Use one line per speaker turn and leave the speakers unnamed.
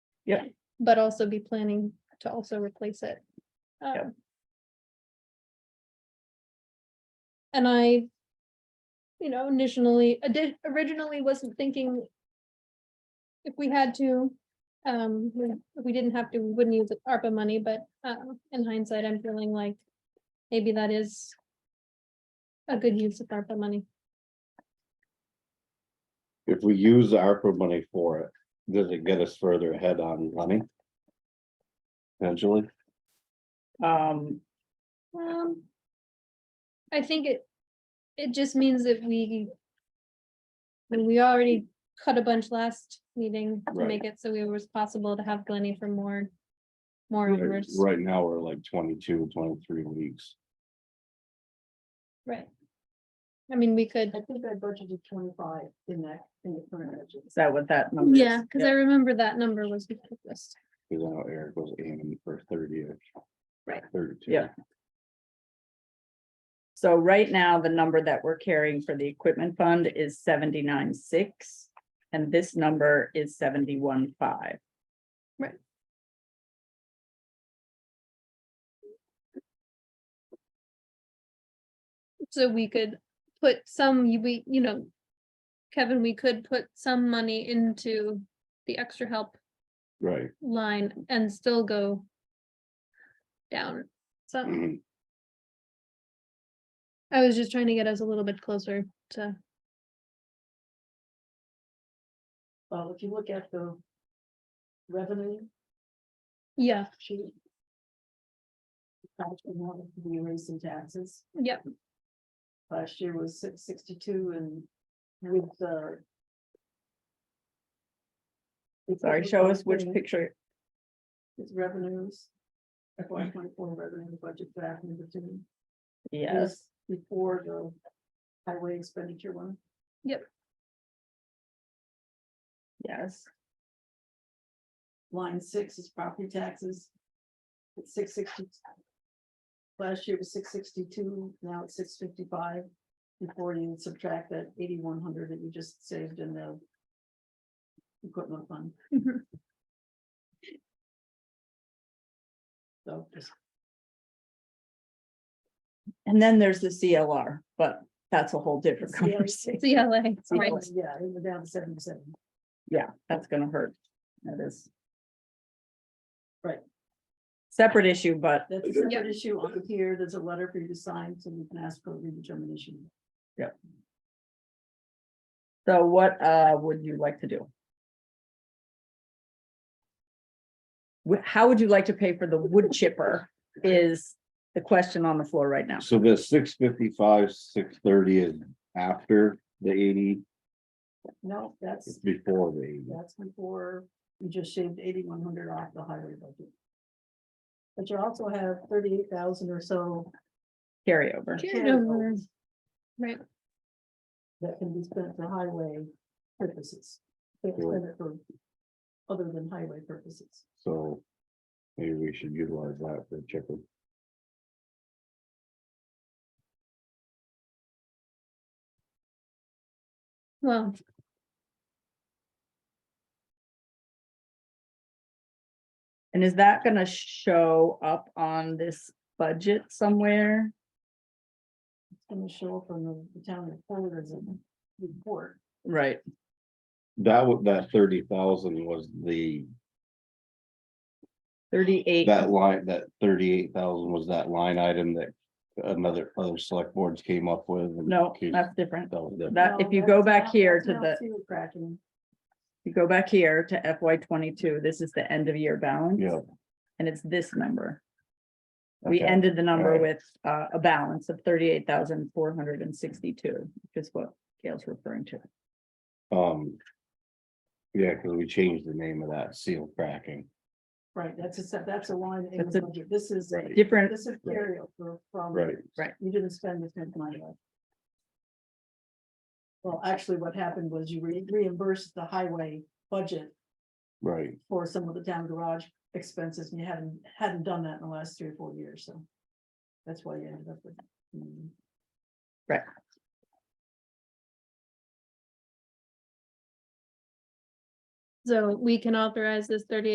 Yeah.
But also be planning to also replace it.
Yeah.
Um, And I, you know, initially, I did, originally wasn't thinking if we had to, um, we- if we didn't have to, we wouldn't use the ARPA money, but, um, in hindsight, I'm feeling like maybe that is a good use of ARPA money.
If we use ARPA money for it, does it get us further ahead on running? Potentially,
Um,
Um. I think it, it just means that we. I mean, we already cut a bunch last meeting to
Right.
make it so it was possible to have Glenny for more. More
right
hours,
right now, we're like 22, 23 weeks.
right? I mean, we could,
I think I budgeted twenty-five in that, in the current budget.
is that what that number is?
yeah, because I remember that number was before this.
Cause I know Eric was aiming for thirty or.
Right.
Thirty-two.
Yeah. So right now, the number that we're carrying for the equipment fund is seventy-nine, six, and this number is seventy-one, five.
Right. So we could put some, you- we, you know. Kevin, we could put some money into the extra help
Right.
line and still go. Down, so
Mhm.
I was just trying to get us a little bit closer to,
Well, if you look at the revenue
yeah,
sheet. Actually, now that we raised some taxes.
yep,
Last year was six sixty-two and with the.
Sorry, show us which picture.
It's revenues. FY twenty-four revenue budget back number two.
Yes,
Before the highway expenditure one.
yes.
Line six is property taxes. It's six sixty. Last year was six sixty-two, now it's six fifty-five. Before you subtract that eighty-one hundred that you just saved in the. Equipment fund,
mhm,
so just
And then there's the CLR, but that's a whole different
The CLR.
conversation.
CLA, right,
Right.
Yeah, it was down to seventy-seven.
Yeah, that's gonna hurt. That is.
Right.
Separate issue, but
That's a separate issue on here. There's a letter for you to sign, so we can ask for redetermination.
so what uh would you like to do? Wh- How would you like to pay for the wood chipper is the question on the floor right now.
So the six fifty-five, six thirty is after the eighty,
No,
it's
that's,
before the eighty.
that's before you just shaved eighty-one hundred off the highway budget. But you also have thirty-eight thousand or so
Carryover.
Carryover.
carryovers
right,
that can be spent for highway purposes. Can't
Sure.
spend it for Other than highway purposes.
So maybe we should utilize that for chicken.
well.
And is that gonna show up on this budget somewhere?
It's gonna show up on the- the town reporters and report.
Right,
That would, that thirty thousand was the,
thirty-eight.
that line, that thirty-eight thousand was that line item that. Another, other select boards came up with. and
No,
came-
that's different.
that was the-
That, if
No,
you go
that's
back
not-
here
that's
to
not
the,
sewer Cracking,
you go back here to FY twenty-two, this is the end of year balance.
Yeah.
And it's this number. We
okay.
ended the number
Alright.
with uh, a balance of thirty-eight thousand four hundred and sixty-two, which is what Gail's referring to.
Um. Yeah, because we changed the name of that seal cracking.
right, that's a, se- that's a line in
That's a-
the budget. This is a,
Different,
this is
Right.
carryover
Um,
from.
Right.
You didn't spend this much money. on it. Well, actually, what happened was you re- reimbursed the highway budget
Right,
for some of the town garage expenses, and you hadn't, hadn't done that in the last three or four years, so. That's why you ended up with. mm.
Right.
So we can authorize this thirty